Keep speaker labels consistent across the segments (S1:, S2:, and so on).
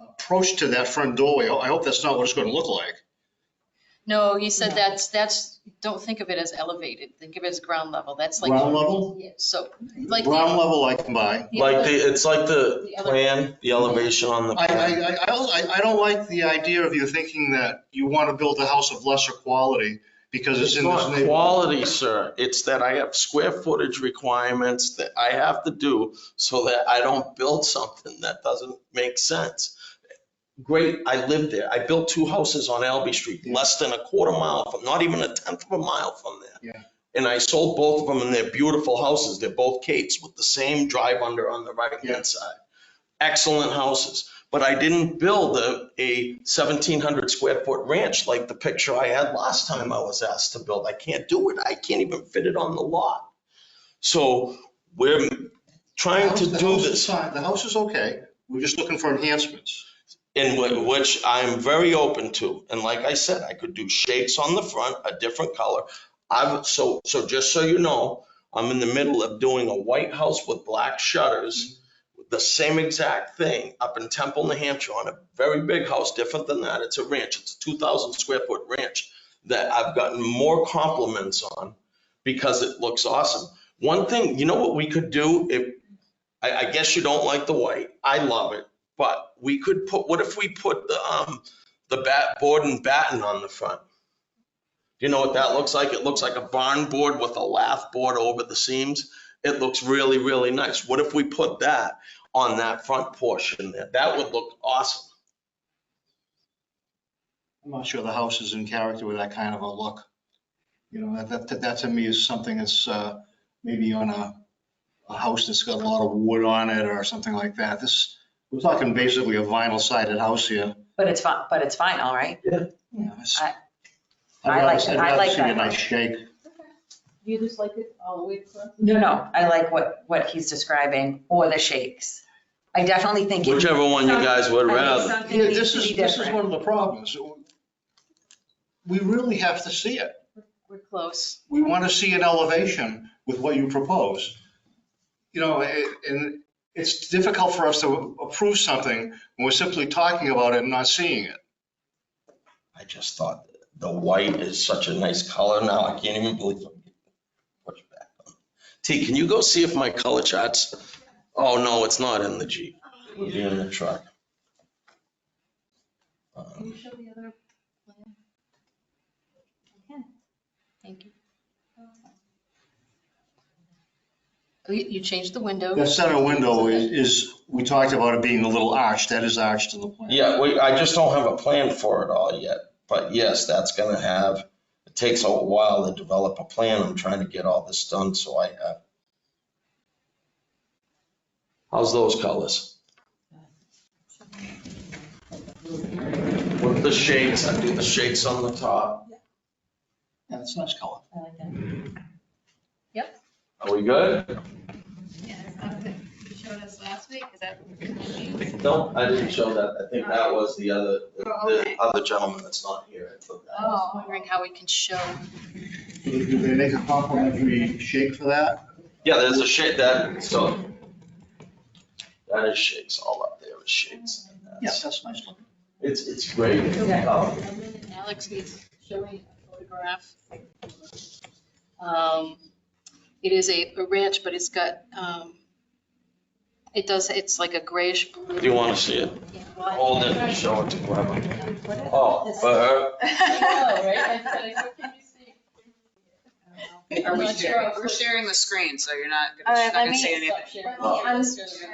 S1: approach to that front doorway, I hope that's not what it's going to look like.
S2: No, he said
S3: No.
S2: that's, that's, don't think of it as elevated, think of it as ground level, that's like.
S1: Ground level?
S2: Yeah, So, like.
S1: Ground level I can buy.
S2: Yeah,
S4: Like
S2: but-
S4: the, it's like the
S2: The ele-
S4: plan, the elevation on the
S1: I, I,
S4: plan.
S1: I- I, don't- I- I don't like the idea of you thinking that you want to build a house of lesser quality because it's in
S4: It's
S1: this
S4: not
S1: neighborhood.
S4: quality, sir. It's that I have square footage requirements that I have to do so that I don't build something that doesn't make sense. Great, I lived there. I built two houses on Albee Street, less than a quarter mile from, not even a tenth of a mile from there.
S1: Yeah.
S4: And I sold both of them and they're beautiful houses. They're both Kates with the same drive under on the right
S1: Yeah.
S4: hand side. Excellent houses. But I didn't build a, a 1,700 square foot ranch like the picture I had last time I was asked to build. I can't do it. I can't even fit it on the lot. So we're trying to
S1: The
S4: do
S1: house is
S4: this,
S1: fine. The house is okay, we're just looking for enhancements.
S4: and whi- which I'm very open to. And like I said, I could do shakes on the front, a different color. I've, so, so just so you know, I'm in the middle of doing a white house with black shutters, the same exact thing up in Temple, New Hampshire on a very big house, different than that. It's a ranch. It's a 2,000 square foot ranch that I've gotten more compliments on because it looks awesome. One thing, you know what we could do if, I, I guess you don't like the white. I love it. But we could put, what if we put the, um, the bat, board and batten on the front? You know what that looks like? It looks like a barn board with a lath board over the seams. It looks really, really nice. What if we put that on that front portion there? That would look awesome.
S1: I'm not sure the house is in character with that kind of a look. You know, that, that, that to me is something that's, uh, maybe on a, a house that's got a lot of wood on it or something like that. This, we're talking basically a vinyl sided house here.
S3: But it's fine, but it's fine, all right?
S1: You know, it's-
S3: I-
S1: I'd
S3: I
S1: rather-
S3: like-
S1: I'd
S3: I
S1: rather
S3: like
S1: see
S3: that
S1: a nice
S3: one.
S1: shake.
S2: You just like it all the way across?
S3: No, no, I like what, what he's describing, or the shakes. I definitely think. it-
S4: Whichever one you guys would
S3: I think
S4: rather.
S3: something
S1: Yeah,
S3: needs
S1: this
S3: to be
S1: is, this is
S3: different.
S1: one of the problems. We really have to see it.
S2: We're close.
S1: We want to see an elevation with what you propose. You know, a- and it's difficult for us to approve something when we're simply talking about it and not seeing it.
S4: I just thought the white is such a nice color now. I can't even believe I'm getting pushed back on. T, can you go see if my color charts? Oh, no, it's not in the Jeep. It'll be in the truck. Um,
S2: Can you show the other plan? Okay, thank you. Oh, You, you changed the window.
S1: That center window is, is, we talked about it being a little arch, that is arched in the plan.
S4: Yeah, we, I just don't have a plan for it all yet, but yes, that's gonna have, it takes a while to develop a plan. I'm trying to get all this done, so I uh, have. How's those colors? With the shakes, I do the shakes on the top.
S1: Yeah, it's a nice color.
S3: I like that.
S4: Are we good?
S5: Yeah, it's not good. You showed us last week, is that?
S2: Oh.
S4: No, I didn't show that. I think that was the other, the
S5: Okay.
S4: other gentleman that's not here. I took that.
S2: Oh, I'm wondering how we can show.
S1: Do they make a complimentary shake for that?
S4: Yeah, there's a shake that, so. That is shakes, all up there is shakes.
S1: Yes, that's nice looking.
S4: It's, it's great.
S3: Yeah.
S4: Um,
S2: Alex needs showing a photograph. Um, It is a a ranch, but it's got, um, it does, it's like a grayish.
S4: Do you want to see it? Hold it and show it to whoever. Oh, for her,
S2: Are we sharing? Uh,
S6: We're sharing the screen, so you're not
S5: All
S6: gonna, she's
S5: right,
S6: not
S5: let
S6: gonna
S5: me-
S6: see anything.
S4: Oh.
S5: I'm sorry.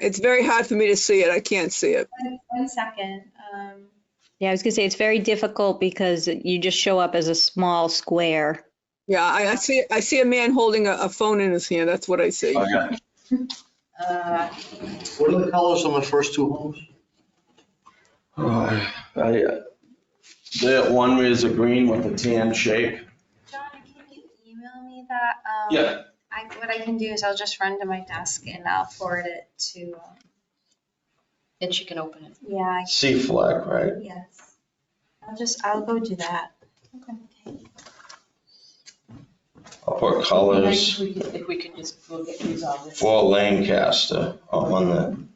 S7: It's very hard for me to see it. I can't see it.
S5: One- One second, um,
S8: Yeah, I was gonna say, it's very difficult because you just show up as a small square.
S7: Yeah, I, I see, I see a man holding a, a phone in his hand. That's what I see.
S4: Okay.
S2: Uh,
S1: What are the colors on the first two homes?
S4: I, uh, That one is a green with a tan shake.
S5: John, can you email me that? Um,
S4: Yeah.
S5: I, what I can do is I'll just run to my desk and I'll forward it to, um,
S2: Then she can open it.
S5: yeah, I-
S4: Sea flag, right?
S5: yes. I'll just, I'll go do that.
S4: I'll put colors
S2: If we can just, we'll get these on.
S4: for Lancaster on the